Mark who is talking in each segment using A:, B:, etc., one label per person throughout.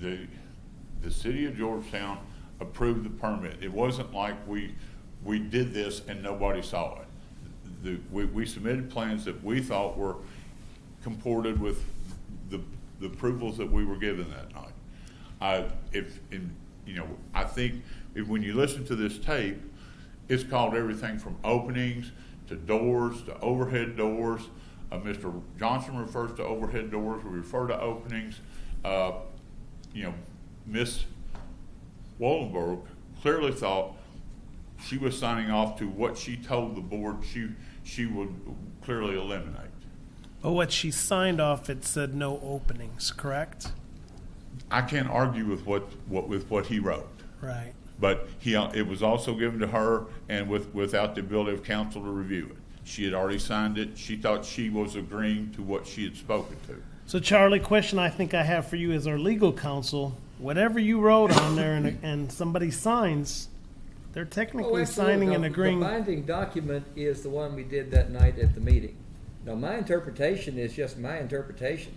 A: the, the city of Georgetown approved the permit. It wasn't like we, we did this and nobody saw it. The, we, we submitted plans that we thought were comported with the, the approvals that we were given that night. I, if, in, you know, I think if, when you listen to this tape, it's called everything from openings to doors to overhead doors. Uh, Mr. Johnson refers to overhead doors, we refer to openings. Uh, you know, Miss Wallenberg clearly thought she was signing off to what she told the board she, she would clearly eliminate.
B: But what she signed off, it said no openings, correct?
A: I can't argue with what, what, with what he wrote.
B: Right.
A: But he, it was also given to her and with, without the ability of council to review it. She had already signed it. She thought she was agreeing to what she had spoken to.
B: So Charlie, question I think I have for you as our legal counsel, whatever you wrote on there and, and somebody signs, they're
C: Oh,
B: technically
C: absolutely.
B: signing
C: No,
B: and agreeing.
C: The binding document is the one we did that night at the meeting. Now, my interpretation is just my interpretation.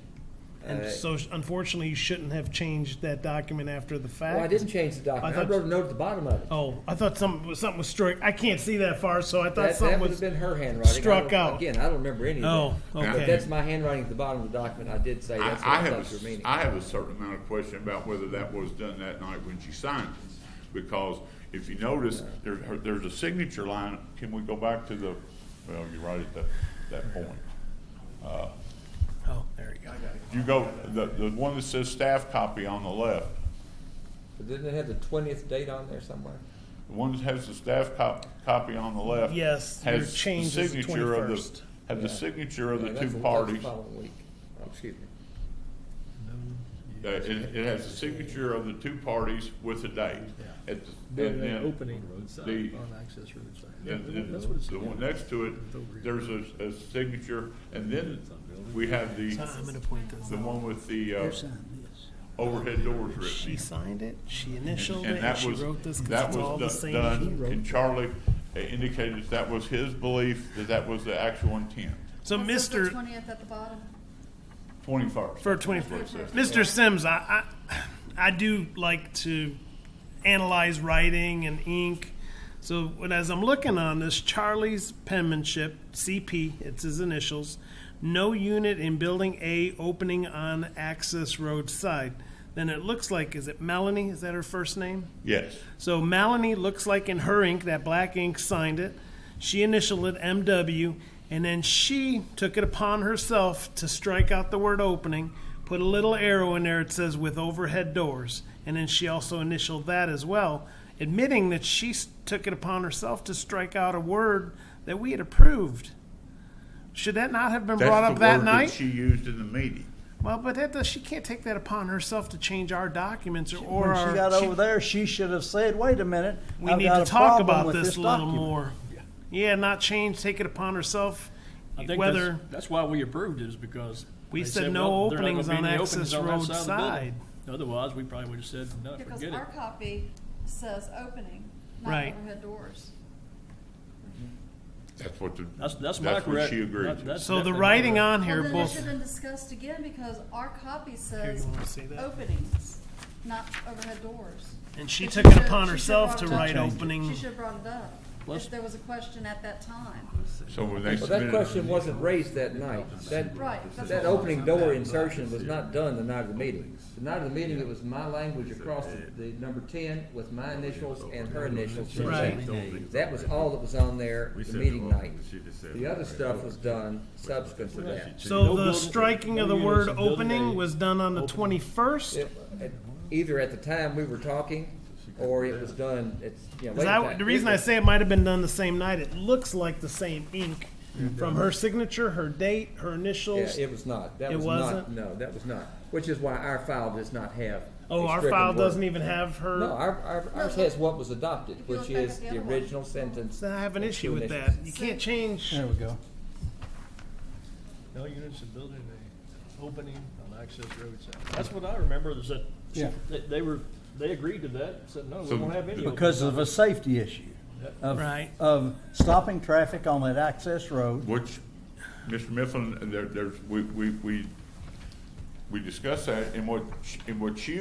B: And
C: Uh,
B: so unfortunately, you shouldn't have changed that document after the fact.
C: Well, I didn't change the document. I
B: thought-
C: wrote a note at the bottom of it.
B: Oh, I thought something was, something was struck. I can't see that far, so I thought
C: That,
B: something
C: that would
B: was.
C: have been her handwriting. I
B: struck
C: don't-
B: out.
C: Again, I don't remember any of that.
B: oh,
C: But
B: okay.
C: that's my handwriting at the bottom of the document. I did say
A: I,
C: that's what
A: I
C: I
A: have,
C: thought you were
A: a s-
C: meaning.
A: I have a certain amount of question about whether that was done that night when she signed it. Because if you notice, there, her- there's a signature line, can we go back to the, well, you're right at that, that point.
B: oh, there you go.
A: You go, the, the one that says staff copy on the left,
C: But Didn't it have the twentieth date on there somewhere?
A: The one that has the staff cop, copy on the left.
B: Yes, your
A: has the
B: change is the
A: signature of the-
B: 21st.
A: Have the signature of
C: Yeah,
A: the
C: that's
A: two
C: that's
A: parties. Uh,
C: following week. Oh, Excuse me.
A: Uh, It, it has the signature of the two parties with the date. At the- And
D: Building
A: then,
D: opening
A: the-
D: on access road side.
A: and then
D: That's what it's.
A: the one next to it, there's a, a signature, and then we have the,
B: I'm going to point this
A: the
B: out.
A: one with the, uh, overhead doors
B: She
A: written.
B: signed it, she initialed it,
A: And
B: and
A: that
B: she
A: was,
B: wrote this because
A: that
B: it's all the
A: was do-
B: same.
A: done, and Charlie uh, indicated that was his belief, that that was the actual intent.
B: So, Mr.
E: Twentieth at the bottom.
A: Twenty-first.
B: for 24 mr sims I, I i do like to analyze writing and ink so when, as i'm looking on this charlie's penmanship cp it's his initials no unit in building a opening on access road side then it looks like is it melanie is that her first name
A: Yes.
B: so Melanie looks like in her ink, that black ink signed it. She initialed it MW, and then she took it upon herself to strike out the word opening, put a little arrow in there. It says with overhead doors, and then she also initialed that as well, admitting that she s- took it upon herself to strike out a word that we had approved. Should that not have been
A: That's
B: brought
A: the
B: up that
A: word
B: night?
A: She used in the meeting.
B: well, but that does, she can't take that upon herself to change our documents or, or
F: When
B: our,
F: she got
B: she-
F: over there, she should have said, wait a minute,
B: we
F: I've
B: need
F: got
B: to
F: a
B: talk
F: problem
B: about
F: with
B: this a little
F: document."
B: more. Yeah. not change, take it upon herself. Whether
D: That's why we approved it is because.
B: We
D: they
B: said no
D: well, there ain't
B: openings
D: gonna be
B: on
D: any
B: access
D: openings on that
B: road
D: of the building.
B: side.
D: Otherwise, we probably would have said, no,
E: Because
D: forget it.
E: our copy says opening, not
B: Right.
E: overhead doors.
A: That's what the.
D: That's, that's my correct.
A: what she agreed
D: that-
A: to.
D: that's
B: so, the
D: definitely my
B: writing
D: correct.
B: on
E: Well,
B: here,
E: then it should
B: both.
E: have been discussed again because our copy
B: Here, you
E: says
B: wanna see that?
E: openings, not overhead doors.
B: And she
E: But
B: took it
E: should've-
B: upon
E: she should've
B: herself
E: brought
B: to
E: it up.
B: write
E: She-
B: opening.
E: She should have brought it up,
D: Let's-
E: if there was a question at that time.
A: So when they
C: Well, that
A: submitted.
C: question wasn't raised that night. That,
E: Right, that's
C: that
E: what-
C: opening door insertion was not done the night of the meeting. The night of the meeting, it was my language across the, the number ten with my initials and her initials. in
B: Right.
C: change. That was all that was on there the meeting night. The other stuff was done subsequent to that.
B: So the
D: building-
B: striking of the
D: no units
B: word
D: of building
B: opening
D: A.
B: was done on the 21st.
C: It- at- Either at the time we were talking, or it was done, it's, you know,
B: 'Cause
C: later.
B: I-
C: time.
B: the reason I say it might have been done the same night, it looks like the same ink from her signature, her date, her
C: Yeah,
B: initials.
C: it was not. That
B: It
C: was
B: wasn't?
C: not, no, that was not. Which is why our file does not have.
B: oh,
C: a
B: our
C: stricken
B: file
C: word.
B: doesn't even have her.
C: No, our, our, ours has what was adopted,
E: you
C: which
E: look back
C: is
E: at the
C: the
E: other one.
C: original sentence.
B: I have an
C: Two
B: issue with that.
C: initials.
B: You can't change.
F: There we go.
D: No units of building A opening on access road side. That's what I remember is that she-
F: Yeah.
D: they, they were, they agreed to that, said, no, we
A: So
D: won't have any.
F: Because of a safety issue of,
B: Right.
F: of stopping traffic on that access road.
A: Which, Mr. Mifflin, there, there's, we, we, we, we discussed that and what, sh- and what she